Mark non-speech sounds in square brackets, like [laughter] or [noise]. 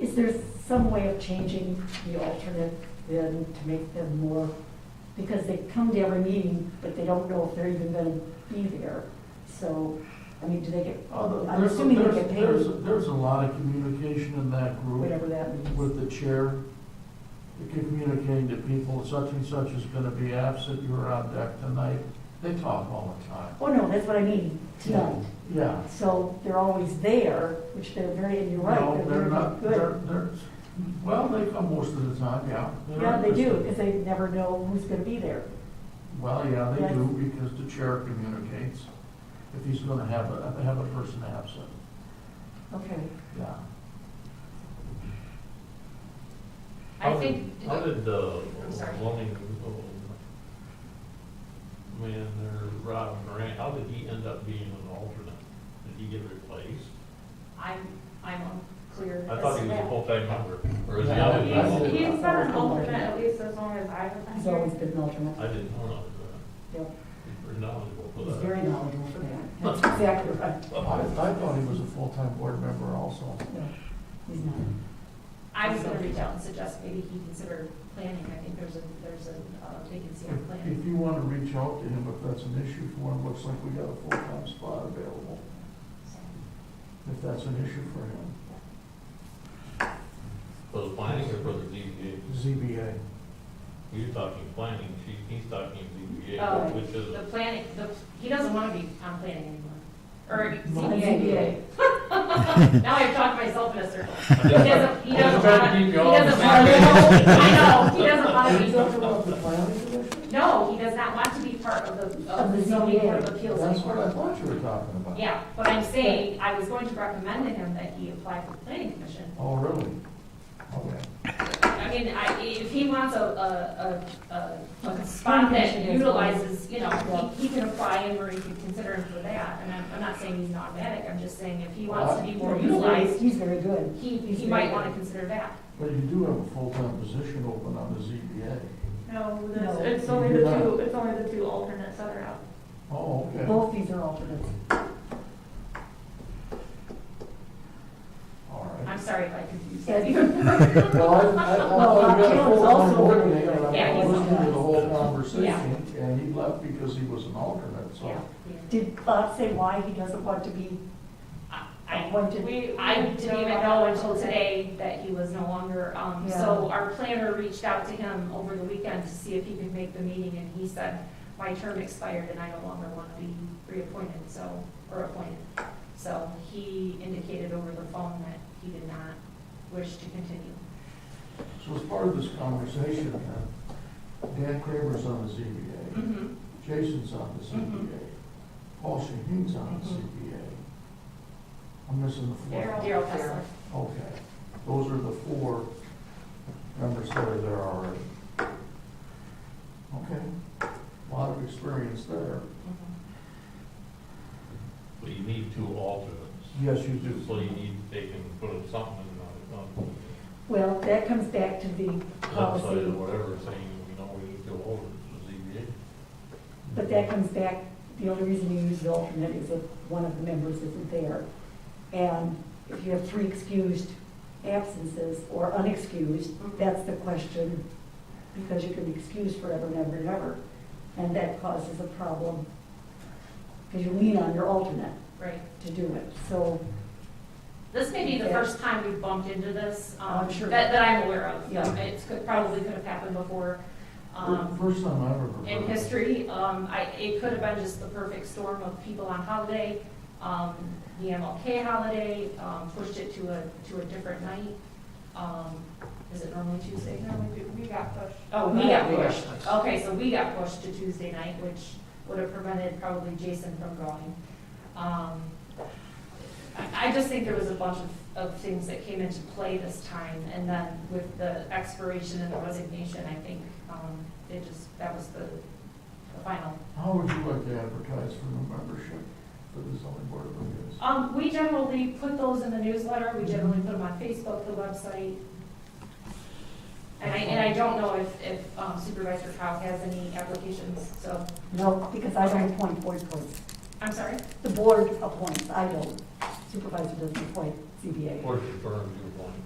Is there some way of changing the alternate then to make them more, because they come to every meeting, but they don't know if they're even gonna be there. So, I mean, do they get, Oh, I'm there's- assuming they there's- get There's, paid, there's a lot of communication in that group whatever that means. with the chair. You keep Communicating to people, such and such is gonna be absent, you were on deck tonight. They talk all the time. Oh, no, that's what I mean, tonight. Yeah. So they're always there, which they're very, and you're No, right, they're they're not, very they're, good. they're, well, they come most of the time, yeah. They're Yeah, they do, interested. because they never know who's gonna be there. Well, yeah, they Yes. do, because the chair communicates if he's gonna have a, have a person absent, Okay. yeah. I How did- think, How did the I'm sorry. loaning, man, there, Rob Moran, how did he end up being an alternate? Did he get replaced? I'm, I'm unclear I thought as he to was a that. full-time member, or is he Yeah, always been a I- full-time? He's, he's been an Alternate. alternate at least as long as I've He's been always here. been an alternate. I didn't know that. Yep. He's pretty knowledgeable for He's that. very knowledgeable for that. That's exactly right. I, I thought he was a full-time board member also. No, He's not. I was gonna reach out and suggest maybe he consider planning, I think there's a, there's a uh, vacancy on If if planning. you want to reach out to him, if that's an issue for him, looks like we got a full-time spot available, So, if that's an issue for him. For the planning or for the ZBA? ZBA. You're talking planning, she, he's talking Oh, ZBA, which is, The planning, the, he doesn't wanna be on planning anymore, or No. CBA. Now I've talked myself in a circle. I He just- doesn't, he I just doesn't tried to wanna, keep he you all on the doesn't same wanna, I know, he doesn't Are wanna be. you talking about the planning commission? No, he does not want to be part of the, of the zoning board of appeals That's what I anymore. thought you were talking about. Yeah, but I'm saying, I was going to recommend to him that he apply for the planning commission. Oh, really? Okay. I mean, I, if he wants a, a, a, a, a spot that utilizes, you know, he, he can apply and or he can consider him for that. And I'm, I'm not saying he's an automatic, I'm just saying if he wants to be more He's very- utilized, He's very good. he, he might wanna consider that. But you do have a full-time position open on the ZBA. No, No. that's- it's only the two, it's only the two alternates that are out. Oh, okay. Both these are alternates. All right. I'm sorry if I confused Yeah. you. Well, I, I, I got a full-time board meeting, and Yeah, I he's- was listening to the whole conversation, and he left because he was an alternate, so. [laughs] Yeah. Did Bob say why he doesn't want to be? I- I, appointed? We- I we didn't don't even know until today that he was no longer, um, Yeah. so our planner reached out to him over the weekend to see if he could make the meeting, and he said, my term expired and I no longer want to be reappointed, so, or appointed. So he indicated over the phone that he did not wish to continue. So as part of this conversation, uh, Dan Kramer's on the ZBA, Mhm. Jason's on the Mhm. ZBA, Paul Shaheen's on the Mhm. ZBA. I'm missing the four. Daryl Kessler. Okay, those are the four members that are there already. Okay, a lot of experience there. Mhm. but you need two alternates. Yes, you do. So you need to take and put up something on, on Well, that comes back to the website or policy, whatever, saying, you know, we need to alter the ZBA. but that comes back, the only reason you use the alternate is if one of the members isn't there. And if you have three excused absences or unexcused, that's the question, because you can be excused forever and ever and ever. And that causes a problem, because you lean on your alternate Right. to do it. So This may be the Yeah. Oh, first time we've bumped into this, um, I'm sure. that, that I'm aware of. Yeah. It could, probably could have happened before. um, First time I ever heard. in of it. history. Um, I, it could have been just the perfect storm of people on holiday. Um, the MLK holiday, um, pushed it to a, to a different night. Um, is it normally Tuesday? No, we do, we got pushed. Oh, we got Yeah. pushed. Okay, so we got pushed to Tuesday night, which would have prevented probably Jason from going. Um, I, I just think there was a bunch of, of things that came into play this time, and then with the expiration and the resignation, I think, um, it just, that was the, the final. How would you like to advertise for new membership for the zoning board of appeals? Um, we generally put those in the newsletter, we generally put them on Facebook, the website. And I, and I don't know if, if um, Supervisor Cow has any applications, so, No, because I don't appoint board points. I'm sorry? The board appoints, I don't. Supervisor doesn't appoint CBA. Or confirm